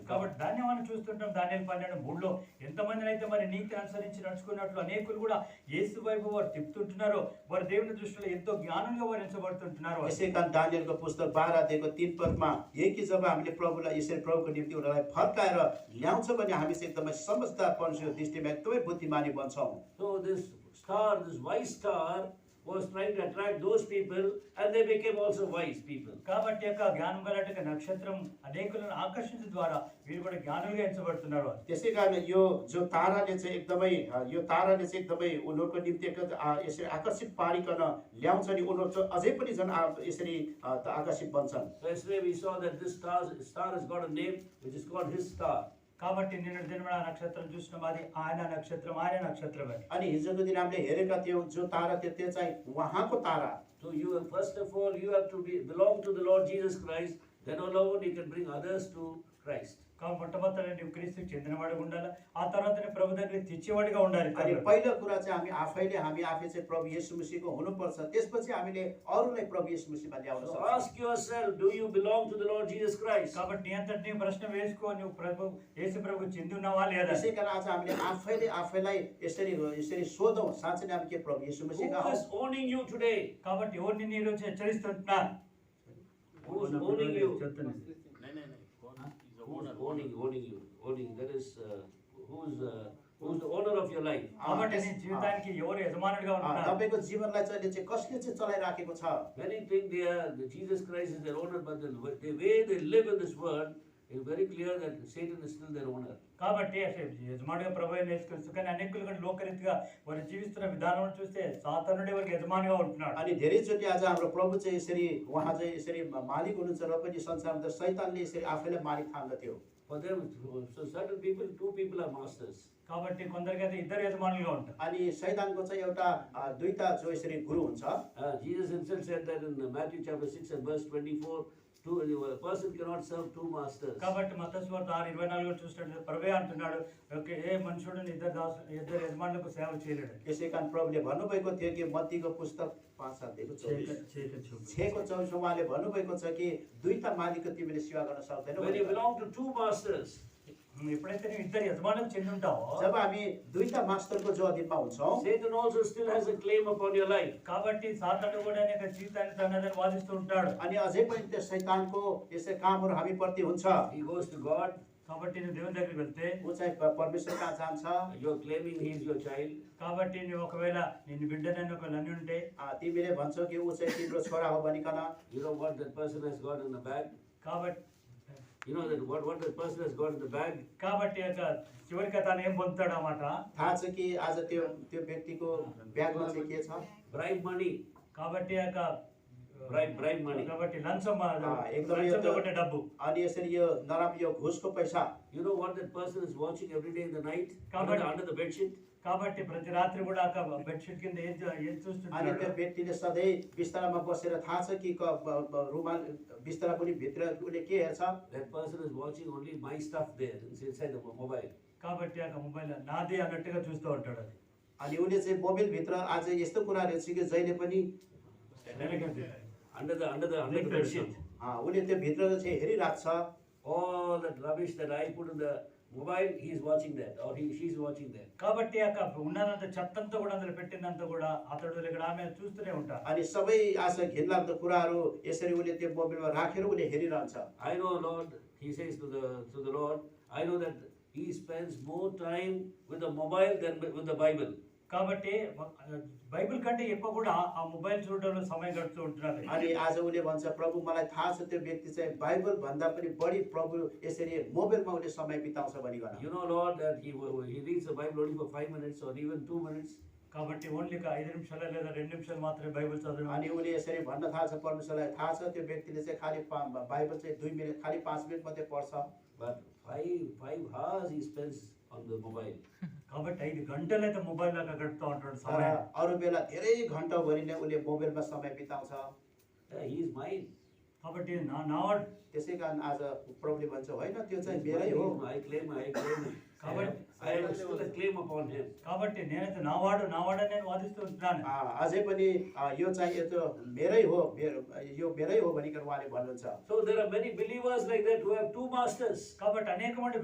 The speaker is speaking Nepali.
కాబట్టి దాన్ని మనం చూస్తుంటాం దానియలు పన్నెండు మూడులో ఎంతమందిని అయితే మరి నీతి అనుసరించి నడుచుకున్నట్లు అనేకులు కూడా యేసు వైపు వారు తిప్పుతుంటున్నారో వారు దేవుని దృష్టిలో ఎంతో జ్ఞానంగా వారు ఎంచబడుతుంటున్నారు यसै कारण दानियलको पुस्तक बाह्र अध्यायको तिन पदमा एकी जब हामीले प्रभुलाई यसरी प्रभुको निम्ति उनीहरूलाई फर्काएर ल्याउँछ भने हामी चाहिँ एकदमै समझदारपनको दृष्टिमा एकदमै बुद्धिमानी बन्छौँ So this star, this wise star, was trying to attract those people, and they became also wise people. కాబట్టి యొక్క జ్ఞానం గలట నక్షత్రం అనేకులను ఆకర్షించడం ద్వారా వీరు కూడా జ్ఞానులుగా ఎంచబడుతున్నారు त्यसै कारण यो जो ताराले चाहिँ एकदमै अ, यो ताराले चाहिँ एकदमै उनीहरूको निम्ति एक- अ, यसरी आकर्षित पारिकन ल्याउँछ नि उनीहरू चाहिँ अझै पनि झन् आ- यसरी अ, त आकर्षित बन्छन् So yesterday we saw that this star, star has got a name which is called his star. కాబట్టి నిన్న దినమున ఆ నక్షత్రం చూసినాం అది ఆయన నక్షత్రం ఆయన నక్షత్రం అని अनि हिजोको दिन हामीले हेरेका थियौँ जो तारा थियो त्यो चाहिँ उहाँको तारा So you have, first of all, you have to be, belong to the Lord Jesus Christ. Then alone you can bring others to Christ. కాబట్టి మొట్టమొదటి నువ్వు క్రీస్తుకు చెందినవాడిగా ఉండాలి ఆ తర్వాత నీ ప్రభు దగ్గరికి తెచ్చేవాడిగా ఉండాలి अनि पहिलो कुरा चाहिँ हामी आफैले हामी आफै चाहिँ प्रभु येशु मसीहको हुनुपर्छ त्यसपछि हामीले अरूलाई प्रभु येशु मसीहमा ल्याउन So सक्छौँ ask yourself, do you belong to the Lord Jesus Christ? కాబట్టి నీ అంతటి నీ ప్రశ్న వేసుకో నువ్వు ప్రభు యేసు ప్రభు చెంది ఉన్నావా లేదా त्यसै कारण आज हामीले आफैले आफैलाई यसरी यसरी सोधौँ साँच्चै नै हामी के प्रभु येशु Who मसीहका हौँ is owning you today? కాబట్టి ఎవరిని నేను ఈరోజు హెచ్చరిస్తున్నారు Who is owning you? చెప్తున్నారు. Who's owning, owning you? Owning, that is, uh, who's, uh, who's the owner of your life? కాబట్టి నీ జీవితానికి ఎవరు యజమానుడిగా अँ, ఉంటున్నారు तपाईँको जीवनलाई चाहिँ अहिले चाहिँ कसले चाहिँ चलाइराखेको छ Many think they are, that Jesus Christ is their owner, but the, the way they live in this world, it's very clear that Satan is still their owner. కాబట్టి అసలు యజమానుడిగా ప్రభు నేర్చుకోవచ్చు కానీ అనేకులు కూడా లోకరీతిగా వారు జీవిస్తున్న విధానం చూస్తే సాతానుడే వారికి యజమానిగా ఉంటున్నాడు अनि धेरैचोटि आज हाम्रो प्रभु चाहिँ यसरी उहाँ चाहिँ यसरी मालिक हुनुहुन्छ र पनि संसारमा त शैतानले यसरी आफैलाई मालिक ठान्दथ्यो For them, so certain people, two people are masters. కాబట్టి కొందరికి అయితే ఇద్దరు యజమానులుగా ఉంటారు अनि शैतानको चाहिँ एउटा अँ, दुईटा जो यसरी गुरु हुन्छ Uh, Jesus himself said that in Matthew chapter 6 and verse 24, two, a person cannot serve two masters. కాబట్టి మతస్వార్థ ఆరు ఇరవై నాలుగు చూసినట్టు ప్రభే అంటున్నాడు ఓకే ఏ మనుషుడు ఇద్దరు దాసు ఇద్దరు యజమానులకు సేవ చేయలేడు यसै कारण प्रभुले भन्नुभएको थियो कि मत्तीको पुस्तक पाँच अध्यायको चौबिस छको चौबिसमा उहाँले भन्नुभएको छ कि दुईटा मालिकको तिमीले सेवा गर्न सक्दैनौ When you भनेर। belong to two masters, నువ్వు ఎప్పుడైతే నువ్వు ఇద్దరు యజమానులకు చెంది ఉంటావో जब हामी दुईटा मास्टरको जो अधीनमा हुन्छौँ Satan also still has a claim upon your life. కాబట్టి సాతాను కూడా నీ యొక్క జీవితాన్ని తనదని వాదిస్తూ ఉంటాడు अनि अझै पनि त्यो शैतानको यसै कामहरू हामी प्रति हुन्छ He goes to God, కాబట్టి నువ్వు దేవుని దగ్గరికి వెళ్తే ऊ चाहिँ प- परमेश्वर कहाँ जान्छ you're claiming he is your child. కాబట్టి నువ్వు ఒకవేళ నేను బిడ్డనని ఒక నన్ను ఉంటే आ, तिमीले भन्छौ कि ऊ चाहिँ तिम्रो छोरा हो भनिकन You know what that person has got in the bag? కాబట్టి You know that what, what that person has got in the bag? కాబట్టి యొక్క చివరికి తను ఏం పొందుతాడు అన్నమాట थाहा छ कि आज त्यो त्यो व्यक्तिको ब्यागमा चाहिँ के छ Bribe money. కాబట్టి యొక్క Bribe- bribe money. కాబట్టి లంచం ఆ, ఆ, ఏదో- లంచంలో ఏదో- ఉండే డబ్బు अनि यसरी यो नराम्रो यो घुसको पैसा You know what that person is watching every day in the night? Come Under, the- on. under the bedsheet? కాబట్టి ప్రతి రాత్రి కూడా ఆ బెడ్షీట్ కింద ఏం చూ- ఏం अनि చూస్తున్నాడు त्यो व्यक्तिले सधैँ बिस्तारामा बसेर थाहा छ कि क- ब- ब- रुमाल बिस्तारा पनि भित्र उसले के हेर्छ That person is watching only my stuff there, it's inside the mo- mobile. కాబట్టి ఆ మొబైల్ నాది అన్నట్టుగా చూస్తూ ఉంటాడు అది अनि उसले चाहिँ मोबाइलभित्र आज यस्तो कुरा रहेछ कि जहिले पनि Under the, under the, under the bedsheet. अँ, उसले त्यो भित्र चाहिँ हेरिरहेको छ All that rubbish that I put in the mobile, he is watching that, or he, she is watching that. కాబట్టి ఆ ఉన్నదంత చెత్తంతా కూడా అందులో పెట్టిందంతా కూడా అతడు ఇక్కడ ఆమె చూస్తూనే ఉంటారు अनि सबै आज घिनलाग्दो कुराहरू यसरी उसले त्यो मोबाइलमा राखेर उसले हेरिरहन्छ I know, Lord, he says to the, to the Lord, I know that he spends more time with the mobile than with with the Bible. కాబట్టి బైబిల్ కంటే ఎక్కువ కూడా ఆ మొబైల్ చూడడంలో సమయం గడుపుతూ ఉంటున్నారు अनि आज उसले भन्छ प्रभु मलाई थाहा छ त्यो व्यक्ति चाहिँ बाइबल भन्दा पनि बढी प्रभु यसरी मोबाइलमा उसले समय बिताउँछ भनिकन You know, Lord, that he, wa- he reads the Bible only for five minutes or even two minutes. కాబట్టి ఓన్లీ ఒక ఐదు నిమిషాలు లేదా రెండు నిమిషాలు మాత్రమే బైబిల్ చదవడం अनि उसले यसरी भन्न थाहा छ परमेश्वरलाई थाहा छ त्यो व्यक्तिले चाहिँ खालि पा- बाइबल चाहिँ दुई मिनट खालि पाँच मिनट मात्रै पढ्छ But five, five hours he spends on the mobile. కాబట్టి ఐదు గంటలు అయితే మొబైల్ లాగా గడుపుతూ ఉంటాడు तर సమయం अरू बेला धेरै घन्टाभरि नै उसले मोबाइलमा समय बिताउँछ Yeah, he is mine. కాబట్టి నా నావాడు त्यसै कारण आज प्रभुले भन्छ होइन त्यो चाहिँ मेरै हो I claim, I claim. I Covered. have- I have still a claim upon him. కాబట్టి నేనైతే నావాడు నావాడని నేను వాదిస్తూ ఉంటున్నాను आ, अझै पनि आ, यो चाहिँ यो त मेरै हो मेरो यो मेरै हो भनिकन उहाँले भन्नुहुन्छ So there are many believers like that who have two masters. కాబట్టి అనేక మంది